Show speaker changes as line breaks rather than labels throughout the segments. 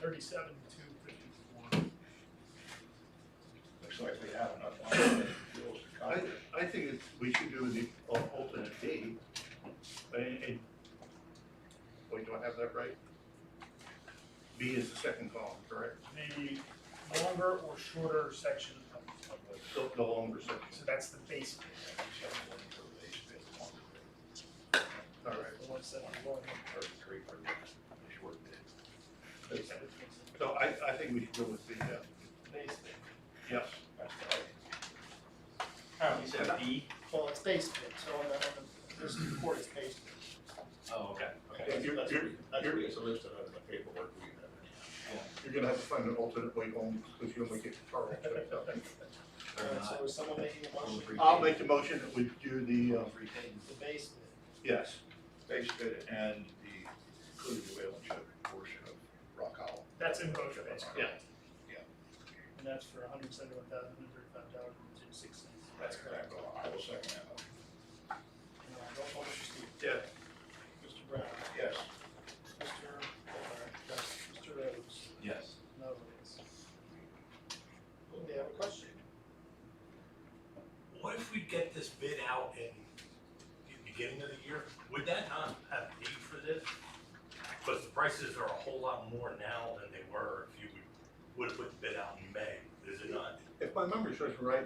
thirty-seven, two fifty-one.
Looks like we have enough on bills to cover
I,
it.
I think it's, we should do the al- alternate D, and, and, oh, you don't have that right? B is the second column, correct?
The longer or shorter section of, of the,
The, the longer section,
so that's the base,
all right.
the ones that are long.
Thirty-three for the short bid.
So I, I think we should go with the, uh,
Base.
yes.
That's all right.
Oh, you said B?
Well, it's base bid, so on the, on the, there's the report, it's base bid.
Oh, okay, okay.
You're, you're, you're,
It's listed on the uh, paperwork we have.
you're gonna have to find an alternate way home, because you only get Charles.
Fair
Alright, so
enough.
is someone making a motion
Free
I'll
paid.
make the motion that we do the, uh,
Free paid.
for the base bid?
yes,
Base bid and the included whale and ship portion of Rock Hall.
That's in both of those.
Yeah.
Yeah.
And that's for hundred and seventy-one thousand, one hundred and five dollars and two six cents.
That's correct. I will second that motion.
And, uh, roll call, Mr. Stevens.
yes.
Mr. Brown.
Yes.
Mr. O'Hara. Mr. Rhodes.
Yes.
No, it's. They have a question.
What if we get this bid out in the beginning of the year? Would that not have paid for this? Because the prices are a whole lot more now than they were if you would, would have put the bid out in May, is it not?
If my memory serves me right,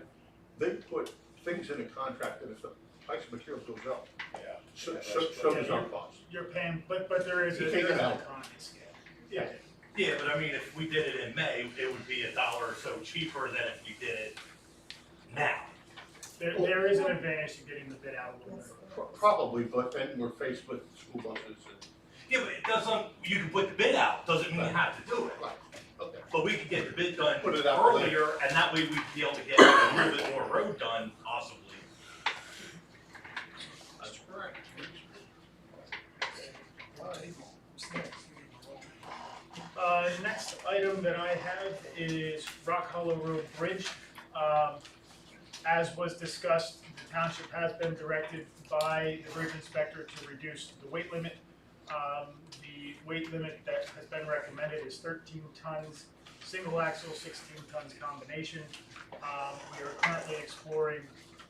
they put things in a contract that if the price of material goes up,
Yeah.
so, so, so does our cost.
You're paying, but, but there is.
You take it out.
Yeah.
Yeah, but I mean, if we did it in May, it would be a dollar or so cheaper than if you did it now.
There, there is an advantage to getting the bid out a little bit.
Pro- Probably, but then we're faced with school buses and,
Yeah, but it doesn't, you can put the bid out, doesn't mean you have to do it.
right, okay.
But we could get the bid done
Put it out for later.
earlier, and that way we'd be able to get a little bit more road done possibly.
That's correct.
Uh, next item that I have is Rock Hollow Road Bridge. Um, as was discussed, the township has been directed by the bridge inspector to reduce the weight limit. Um, the weight limit that has been recommended is thirteen tons, single axle, sixteen tons combination. Um, we are currently exploring,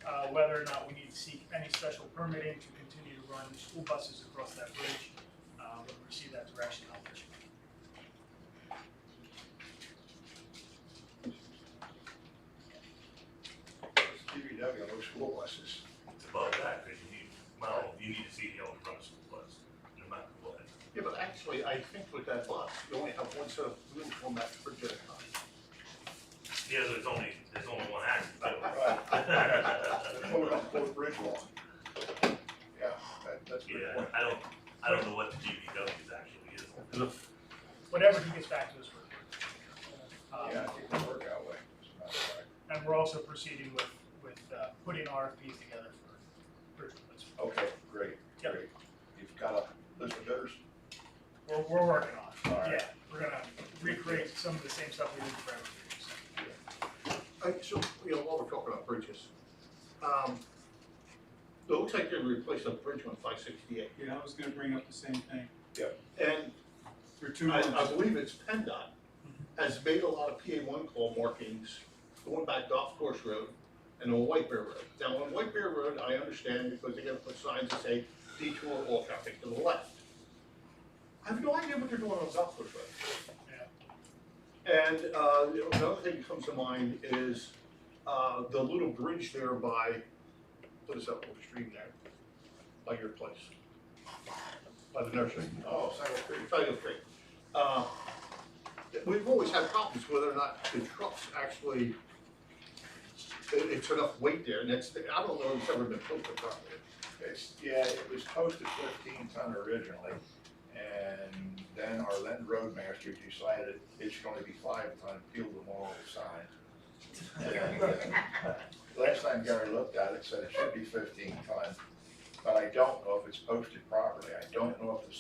uh, whether or not we need to seek any special permitting to continue to run school buses across that bridge. Uh, when we receive that direction, I'll let you know.
DPW, no school buses.
It's above that, because you need, well, you need to see the old front school bus, no matter what.
Yeah, but actually, I think with that bus, you only have one set of wheels on that particular time.
Yeah, there's only, there's only one axle to it.
Hold on, Fort Bridge Walk. Yeah, that, that's a good
Yeah,
point.
I don't, I don't know what the GVW is actually is.
whatever he gets back to us with.
Yeah,
Um,
I think it'll work out way. As a matter of fact.
And we're also proceeding with, with uh, putting RFPs together for bridge replacement.
Okay, great,
Yep.
great. You've got a list of bidders?
We're, we're working on
All
it,
right.
yeah. We're gonna recreate some of the same stuff we did for every year, so.
I, so, you know, while we're talking about bridges, um, it looks like they replaced a bridge on five sixty-eight.
Yeah, I was gonna bring up the same thing.
And
There are two Mm-hmm.
I, I
ones.
believe it's PennDOT, has made a lot of PA one call markings going back Golf Course Road and on White Bear Road. Now, on White Bear Road, I understand because they gotta put signs that say detour all traffic to the left. I have no idea what they're doing on Golf Course Road. And, uh, you know, another thing that comes to mind is, uh, the little bridge there by, what is that little stream there? By your place? By the nursery?
Oh, Saddle Creek.
Title Creek. Uh, We've always had problems whether or not the trucks actually, it- it's enough weight there, and that's, I don't know if it's ever been built properly.
It's, yeah, it was posted fifteen ton originally, and then our Lynn Roadmaster decided it's gonna be five ton, peeled them all aside. Last time Gary looked at it, said it should be fifteen ton, but I don't know if it's posted properly, I don't know if the